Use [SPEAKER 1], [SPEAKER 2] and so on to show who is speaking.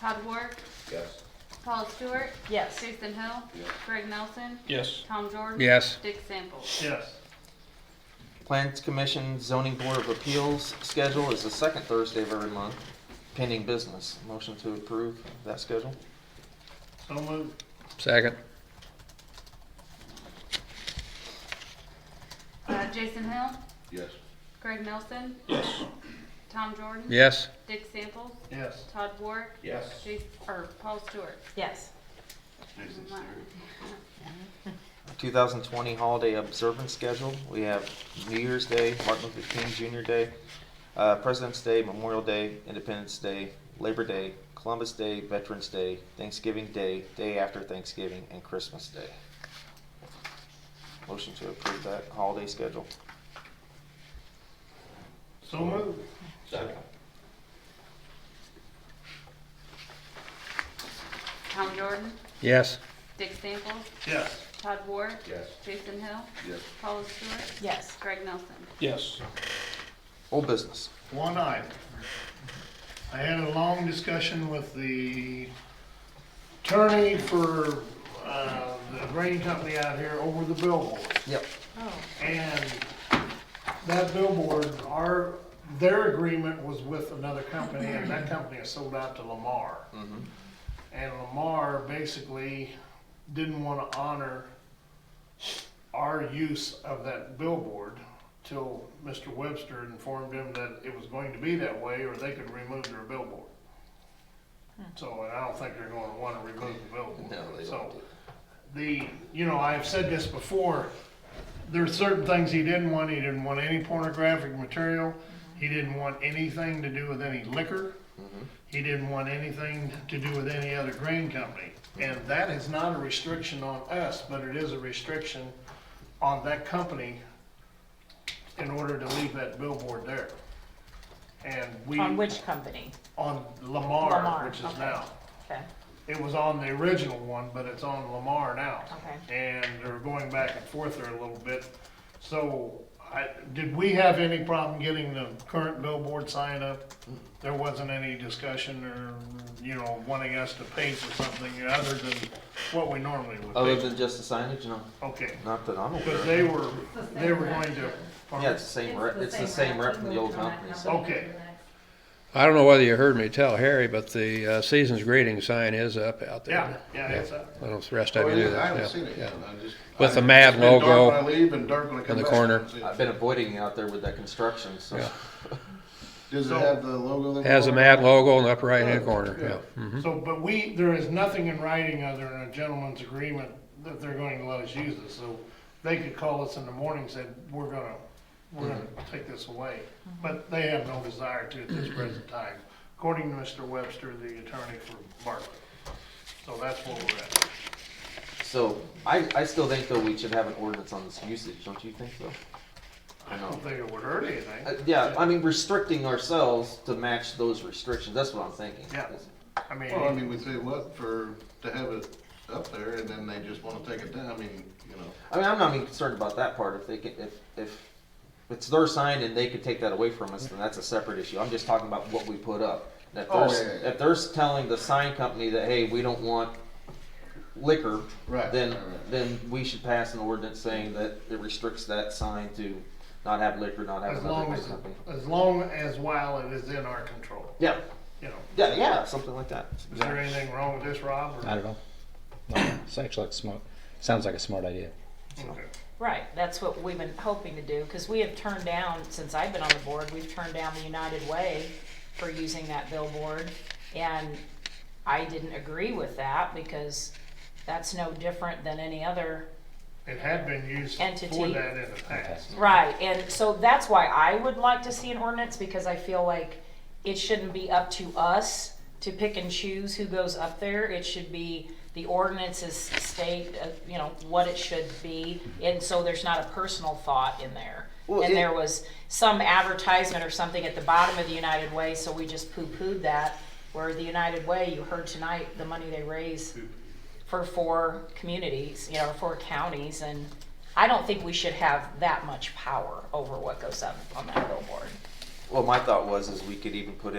[SPEAKER 1] Todd Ward,
[SPEAKER 2] Yes.
[SPEAKER 1] Paula Stewart,
[SPEAKER 3] Yes.
[SPEAKER 1] Jason Hill,
[SPEAKER 2] Yes.
[SPEAKER 1] Greg Nelson,
[SPEAKER 4] Yes.
[SPEAKER 1] Tom Jordan.
[SPEAKER 5] Yes.
[SPEAKER 1] Dick Samples.
[SPEAKER 4] Yes.
[SPEAKER 6] Plans Commission Zoning Board of Appeals schedule is the second Thursday of every month, pending business. Motion to approve that schedule?
[SPEAKER 4] So moved.
[SPEAKER 5] Second.
[SPEAKER 1] Uh, Jason Hill,
[SPEAKER 2] Yes.
[SPEAKER 1] Greg Nelson,
[SPEAKER 4] Yes.
[SPEAKER 1] Tom Jordan.
[SPEAKER 5] Yes.
[SPEAKER 1] Dick Samples,
[SPEAKER 4] Yes.
[SPEAKER 1] Todd Ward,
[SPEAKER 2] Yes.
[SPEAKER 1] Jason, or Paula Stewart.
[SPEAKER 3] Yes.
[SPEAKER 4] Jason
[SPEAKER 1] Wow.
[SPEAKER 4] Stewart.
[SPEAKER 6] 2020 holiday observance schedule. We have New Year's Day, Martin Luther King Jr. Day, uh, President's Day, Memorial Day, Independence Day, Labor Day, Columbus Day, Veterans Day, Thanksgiving Day, Day after Thanksgiving, and Christmas Day. Motion to approve that holiday schedule.
[SPEAKER 4] So moved.
[SPEAKER 2] Second.
[SPEAKER 1] Tom Jordan,
[SPEAKER 5] Yes.
[SPEAKER 1] Dick Samples,
[SPEAKER 4] Yes.
[SPEAKER 1] Todd Ward,
[SPEAKER 2] Yes.
[SPEAKER 1] Jason Hill,
[SPEAKER 2] Yes.
[SPEAKER 1] Paula Stewart,
[SPEAKER 3] Yes.
[SPEAKER 1] Greg Nelson.
[SPEAKER 4] Yes.
[SPEAKER 6] Old business.
[SPEAKER 4] One item. I had a long discussion with the attorney for, uh, the grading company out here over the billboard.
[SPEAKER 6] Yep.
[SPEAKER 3] Oh,
[SPEAKER 4] And that billboard, our, their agreement was with another company, and that company is sold out to Lamar. And Lamar basically didn't wanna honor our use of that billboard till Mr. Webster informed him that it was going to be that way, or they could remove their billboard. So, and I don't think they're gonna wanna remove the billboard.
[SPEAKER 6] No, they
[SPEAKER 4] So,
[SPEAKER 6] won't.
[SPEAKER 4] The, you know, I've said this before, there's certain things he didn't want. He didn't want any pornographic material. He didn't want anything to do with any liquor. He didn't want anything to do with any other grain company. And that is not a restriction on us, but it is a restriction on that company in order to leave that billboard there. And we,
[SPEAKER 3] on which company?
[SPEAKER 4] on
[SPEAKER 3] Lamar,
[SPEAKER 4] Lamar, which is
[SPEAKER 3] okay.
[SPEAKER 4] now.
[SPEAKER 3] Okay,
[SPEAKER 4] It was on the original one, but it's on Lamar now.
[SPEAKER 3] Okay.
[SPEAKER 4] And they're going back and forth there a little bit. So, I, did we have any problem getting the current billboard sign up? There wasn't any discussion or, you know, wanting us to paint or something other than what we normally would
[SPEAKER 6] Other
[SPEAKER 4] paint?
[SPEAKER 6] than just the signage, no,
[SPEAKER 4] Okay,
[SPEAKER 6] not that I'm aware
[SPEAKER 4] because
[SPEAKER 6] of.
[SPEAKER 4] they were, they were going to.
[SPEAKER 6] Yeah, it's the same rep, it's the same rep from the old company, so.
[SPEAKER 4] Okay,
[SPEAKER 5] I don't know whether you heard me tell Harry, but the uh, season's greeting sign is up out
[SPEAKER 4] yeah,
[SPEAKER 5] there.
[SPEAKER 4] yeah, it's a,
[SPEAKER 5] I don't rest
[SPEAKER 2] Oh,
[SPEAKER 5] I
[SPEAKER 2] it
[SPEAKER 5] knew
[SPEAKER 2] is.
[SPEAKER 5] that.
[SPEAKER 2] I haven't
[SPEAKER 5] yeah,
[SPEAKER 2] seen it
[SPEAKER 5] yeah.
[SPEAKER 2] yet. I just-
[SPEAKER 5] With the
[SPEAKER 2] I-
[SPEAKER 5] Mav
[SPEAKER 2] it's been dark
[SPEAKER 5] logo
[SPEAKER 2] when I leave and dark when I come
[SPEAKER 5] the
[SPEAKER 2] back.
[SPEAKER 5] corner.
[SPEAKER 4] Oh.
[SPEAKER 6] I've been avoiding it out there with that construction, so.
[SPEAKER 5] Yeah.
[SPEAKER 2] Does it have the logo? that-
[SPEAKER 5] Has a mad logo in the upper right hand corner, yeah. Mhm.
[SPEAKER 4] So, but we, there is nothing in writing other than a gentleman's agreement that they're going to let us use it, so they could call us in the morning and say, we're gonna, we're gonna take this away. But they have no desire to at this present time, according to Mr. Webster, the attorney for Bartlett. So that's where we're at.
[SPEAKER 6] So, I, I still think though we should have an ordinance on this usage, don't you think so?
[SPEAKER 4] I don't think it would hurt anything.
[SPEAKER 6] Uh, yeah, I mean, restricting ourselves to match those restrictions, that's what I'm thinking.
[SPEAKER 4] Yeah. I
[SPEAKER 2] Well, I
[SPEAKER 4] mean,
[SPEAKER 2] mean, we say what for, to have it up there and then they just wanna take it down. I mean, you know.
[SPEAKER 6] I mean, I'm not even concerned about that part, if they can, if, if it's their sign and they could take that away from us, then that's a separate issue, I'm just talking about what we put up. And If
[SPEAKER 2] Oh,
[SPEAKER 6] there's,
[SPEAKER 2] yeah, yeah, yeah.
[SPEAKER 6] if there's telling the sign company that, hey, we don't want liquor,
[SPEAKER 2] Right,
[SPEAKER 6] then,
[SPEAKER 2] right, right.
[SPEAKER 6] then we should pass an ordinance saying that it restricts that sign to not have liquor, not have
[SPEAKER 4] as
[SPEAKER 6] another
[SPEAKER 4] long
[SPEAKER 6] liquor
[SPEAKER 4] as,
[SPEAKER 6] company.
[SPEAKER 4] as long as while it is in our control,
[SPEAKER 6] Yeah,
[SPEAKER 4] you know.
[SPEAKER 6] yeah, yeah, something like that.
[SPEAKER 4] Is there anything wrong with this, Rob? or-
[SPEAKER 7] I don't know. No, it's actually like smart. Sounds like a smart idea.
[SPEAKER 4] Okay.
[SPEAKER 3] right, that's what we've been hoping to do, because we have turned down, since I've been on the board, we've turned down the United Way for using that billboard, and I didn't agree with that, because that's no different than any other
[SPEAKER 4] It had been used for
[SPEAKER 3] Entity.
[SPEAKER 4] that in the past.
[SPEAKER 3] Right, and so that's why I would like to see an ordinance, because I feel like it shouldn't be up to us to pick and choose who goes up there. It should be, the ordinances state, uh, you know, what it should be, and so there's not a personal thought in there.
[SPEAKER 6] Well,
[SPEAKER 3] And
[SPEAKER 6] it-
[SPEAKER 3] there was some advertisement or something at the bottom of the United Way, so we just poo-pooed that, where the United Way, you heard tonight, the money they raise for four communities, you know, four counties, and I don't think we should have that much power over what goes up on that billboard.
[SPEAKER 6] Well, my thought was, is we could even put